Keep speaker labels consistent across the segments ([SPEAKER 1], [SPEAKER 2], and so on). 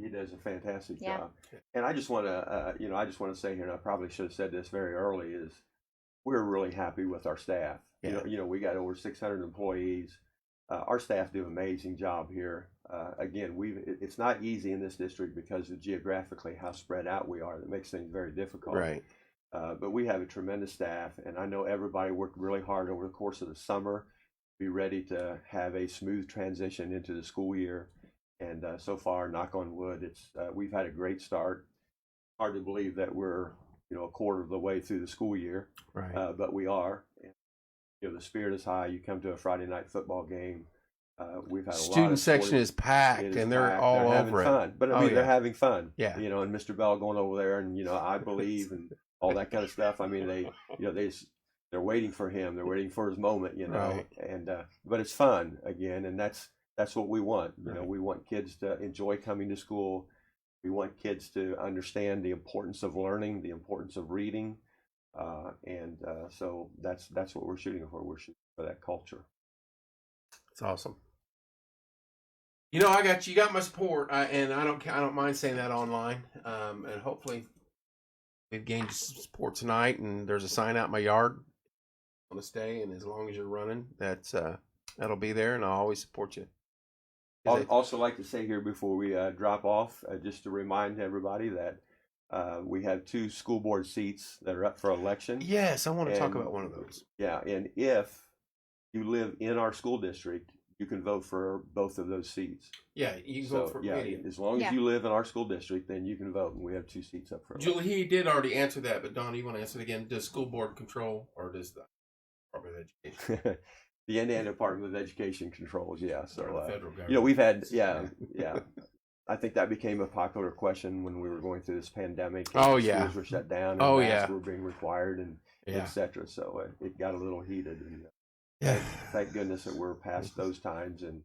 [SPEAKER 1] is a fantastic
[SPEAKER 2] Yeah.
[SPEAKER 1] job. And I just want to, uh, you know, I just want to say here, and I probably should have said this very early, is we're really happy with our staff. You
[SPEAKER 3] Yeah.
[SPEAKER 1] know, you know, we got over 600 employees. Uh, our staff do an amazing job here. Uh, again, we it, it's not easy in this district because of geographically how spread out we are. That makes things very difficult.
[SPEAKER 3] Right.
[SPEAKER 1] Uh, but we have a tremendous staff, and I know everybody worked really hard over the course of the summer, to be ready to have a smooth transition into the school year. And uh, so far, knock on wood, it's uh, we've had a great start. Hard to believe that we're you know a quarter of the way through the school year,
[SPEAKER 3] Right.
[SPEAKER 1] uh, but we are. And, you know the spirit is high. You come to a Friday night football game. Uh, we've had a lot
[SPEAKER 3] Student
[SPEAKER 1] of
[SPEAKER 3] section
[SPEAKER 1] sporting-
[SPEAKER 3] is packed,
[SPEAKER 1] it is
[SPEAKER 3] and they're
[SPEAKER 1] packed.
[SPEAKER 3] all
[SPEAKER 1] having
[SPEAKER 3] over it.
[SPEAKER 1] fun. But I
[SPEAKER 3] Oh,
[SPEAKER 1] mean, they're
[SPEAKER 3] yeah.
[SPEAKER 1] having fun.
[SPEAKER 3] Yeah.
[SPEAKER 1] You know, and Mr. Bell going over there, and you know, I believe, and all that kind of stuff. I mean, they, you know, they, just, they're waiting for him. They're waiting for his moment. You know,
[SPEAKER 3] Right.
[SPEAKER 1] and uh, but it's fun again, and that's that's what we want. You know,
[SPEAKER 3] Right.
[SPEAKER 1] we want kids to enjoy coming to school. We want kids to understand the importance of learning, the importance of reading, uh, and uh, so that's that's what we're shooting for. We're shooting for that culture.
[SPEAKER 3] It's awesome. You know, I got you. Got my support, I, and I don't. ca- I don't mind saying that online. Um, and hopefully, we've gained some support tonight. And there's a sign out in my yard on this day. And as long as you're running, that's uh, that'll be there, and I'll always support you. 'Cause
[SPEAKER 1] I'd also like to say here before we uh, drop off, uh, just to remind everybody that uh, we have two school board seats that are up for
[SPEAKER 3] I-
[SPEAKER 1] election.
[SPEAKER 3] yes, I want to talk
[SPEAKER 1] And-
[SPEAKER 3] about one of those.
[SPEAKER 1] Yeah, and if you live in our school district, you can vote for both of those seats.
[SPEAKER 3] Yeah, you can
[SPEAKER 1] So,
[SPEAKER 3] vote for
[SPEAKER 1] yeah,
[SPEAKER 3] idiot.
[SPEAKER 1] as long as
[SPEAKER 2] Yeah.
[SPEAKER 1] you live in our school district, then you can vote, and we have two seats up for election.
[SPEAKER 3] Julie, he did already answer that, but Don, you want to answer it again? Does school board control, or does the Department of Education,
[SPEAKER 1] the Indiana Department of Education controls. Yeah, so
[SPEAKER 3] or the
[SPEAKER 1] uh,
[SPEAKER 3] federal government?
[SPEAKER 1] You know, we've had, yeah, yeah. I think that became a popular question when we were going through this pandemic. and
[SPEAKER 3] Oh, yeah.
[SPEAKER 1] schools were shut down. And
[SPEAKER 3] Oh,
[SPEAKER 1] masks
[SPEAKER 3] yeah.
[SPEAKER 1] were being required and
[SPEAKER 3] yeah.
[SPEAKER 1] et cetera. So it, it got a little heated. And
[SPEAKER 3] yeah.
[SPEAKER 1] thank goodness that we're past those times. And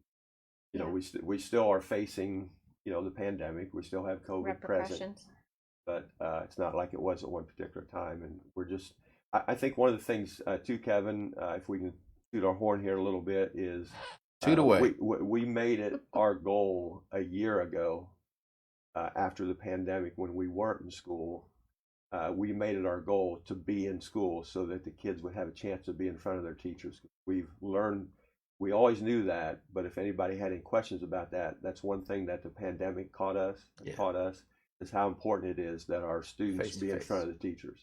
[SPEAKER 1] you know, we st- we still are facing you know the pandemic. We still have COVID present,
[SPEAKER 2] Repercussions.
[SPEAKER 1] but uh, it's not like it was at one particular time. And we're just, I, I think one of the things uh, too, Kevin, uh, if we can toot our horn here a little bit, is
[SPEAKER 3] Toot
[SPEAKER 1] uh,
[SPEAKER 3] away.
[SPEAKER 1] We, we, we made it our goal a year ago uh, after the pandemic when we weren't in school. Uh, we made it our goal to be in school so that the kids would have a chance to be in front of their teachers. We've learned, we always knew that, but if anybody had any questions about that, that's one thing that the pandemic caught us,
[SPEAKER 3] Yeah.
[SPEAKER 1] taught us, is how important it is that our students
[SPEAKER 3] Face to
[SPEAKER 1] be in
[SPEAKER 3] face.
[SPEAKER 1] front of the teachers.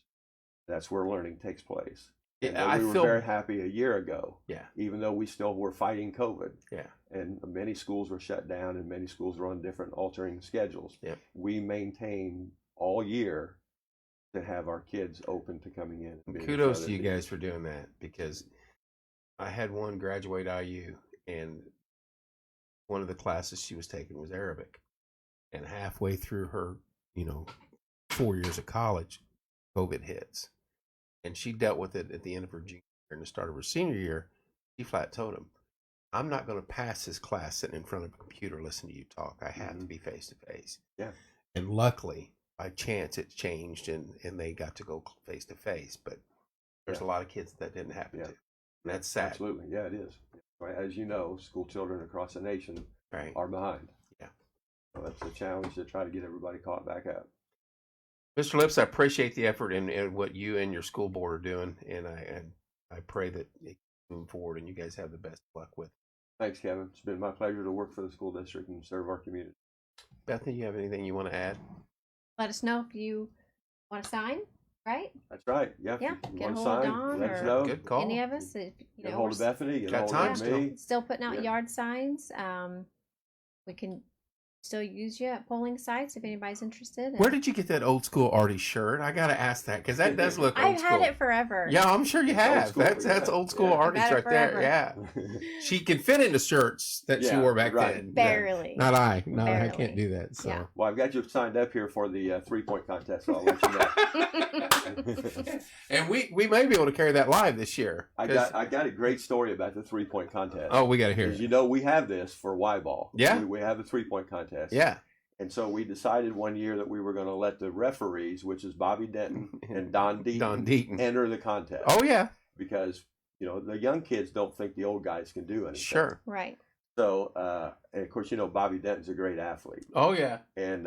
[SPEAKER 1] That's where learning takes place. And
[SPEAKER 3] Yeah,
[SPEAKER 1] that
[SPEAKER 3] I
[SPEAKER 1] we were
[SPEAKER 3] feel
[SPEAKER 1] very happy a year ago.
[SPEAKER 3] Yeah.
[SPEAKER 1] Even though we still were fighting COVID.
[SPEAKER 3] Yeah.
[SPEAKER 1] And many schools were shut down and many schools were on different altering schedules.
[SPEAKER 3] Yeah.
[SPEAKER 1] We maintained all year to have our kids open to coming in. and being in front
[SPEAKER 3] kudos
[SPEAKER 1] of
[SPEAKER 3] to you
[SPEAKER 1] the-
[SPEAKER 3] guys for doing that because I had one graduate IU and one of the classes she was taking was Arabic. And halfway through her, you know, four years of college, COVID hits. And she dealt with it at the end of her junior year and the start of her senior year. She flat told him, I'm not going to pass this class sitting in front of a computer listening to you talk. I have to
[SPEAKER 1] Mhm.
[SPEAKER 3] be face to face.
[SPEAKER 1] Yeah.
[SPEAKER 3] And luckily, by chance, it changed and, and they got to go face to face. But there's a lot of kids that didn't happen
[SPEAKER 1] Yeah.
[SPEAKER 3] to. And that's sad.
[SPEAKER 1] Absolutely. Yeah, it is. Right, As you know, school children across the nation
[SPEAKER 3] Right.
[SPEAKER 1] are behind.
[SPEAKER 3] Yeah.
[SPEAKER 1] So that's a challenge to try to get everybody caught back up.
[SPEAKER 3] Mr. Lips, I appreciate the effort and, and what you and your school board are doing. And I and I pray that it move forward and you guys have the best luck with it.
[SPEAKER 1] Thanks, Kevin. It's been my pleasure to work for the school district and serve our community.
[SPEAKER 3] Bethany, you have anything you want to add?
[SPEAKER 2] Let us know if you want to sign, right?
[SPEAKER 1] That's right. Yeah.
[SPEAKER 2] Yeah,
[SPEAKER 1] You
[SPEAKER 2] get
[SPEAKER 1] want to
[SPEAKER 2] hold of
[SPEAKER 1] sign?
[SPEAKER 2] Don
[SPEAKER 1] Let us
[SPEAKER 2] or-
[SPEAKER 1] know.
[SPEAKER 3] Good call.
[SPEAKER 2] Any of us, if, you
[SPEAKER 1] Get
[SPEAKER 2] know,
[SPEAKER 1] hold
[SPEAKER 2] we're
[SPEAKER 1] of
[SPEAKER 2] s-
[SPEAKER 1] Bethany. Get
[SPEAKER 3] Got
[SPEAKER 1] hold
[SPEAKER 3] time
[SPEAKER 1] of
[SPEAKER 3] still.
[SPEAKER 1] me.
[SPEAKER 2] still putting out
[SPEAKER 1] Yeah.
[SPEAKER 2] yard signs. Um, we can still use you at polling sites if anybody's interested. and-
[SPEAKER 3] Where did you get that old school Artie shirt? I gotta ask that because that does look old
[SPEAKER 2] I've
[SPEAKER 3] school.
[SPEAKER 2] had it forever.
[SPEAKER 3] Yeah, I'm sure you
[SPEAKER 1] It's old
[SPEAKER 3] have.
[SPEAKER 1] school,
[SPEAKER 3] that's that's
[SPEAKER 1] yeah.
[SPEAKER 3] old school
[SPEAKER 1] Yeah. I've
[SPEAKER 3] artists
[SPEAKER 2] had it
[SPEAKER 3] right there.
[SPEAKER 2] forever.
[SPEAKER 3] Yeah, she can fit into shirts that she
[SPEAKER 1] Yeah,
[SPEAKER 3] wore back
[SPEAKER 1] right.
[SPEAKER 3] then.
[SPEAKER 2] barely.
[SPEAKER 3] Not I. No, I
[SPEAKER 2] Barely.
[SPEAKER 3] can't do that. So.
[SPEAKER 2] Yeah.
[SPEAKER 1] well, I've got you signed up here for the uh, three point contest. So I'll let you know.
[SPEAKER 3] and we we may be able to carry that live this year.
[SPEAKER 1] I
[SPEAKER 3] 'cause-
[SPEAKER 1] got I got a great story about the three point contest.
[SPEAKER 3] oh, we got to hear.
[SPEAKER 1] 'Cause
[SPEAKER 3] It.
[SPEAKER 1] you know we have this for Y ball.
[SPEAKER 3] Yeah.
[SPEAKER 1] we, we have a three point contest.
[SPEAKER 3] Yeah,
[SPEAKER 1] and so we decided one year that we were going to let the referees, which is Bobby Denton and Don Deaton,
[SPEAKER 3] Don Deaton.
[SPEAKER 1] enter the contest.
[SPEAKER 3] oh yeah,
[SPEAKER 1] because you know the young kids don't think the old guys can do anything.
[SPEAKER 3] sure.
[SPEAKER 2] right.
[SPEAKER 1] So, uh, and of course, you know Bobby Denton's a great athlete,
[SPEAKER 3] Oh yeah.
[SPEAKER 1] and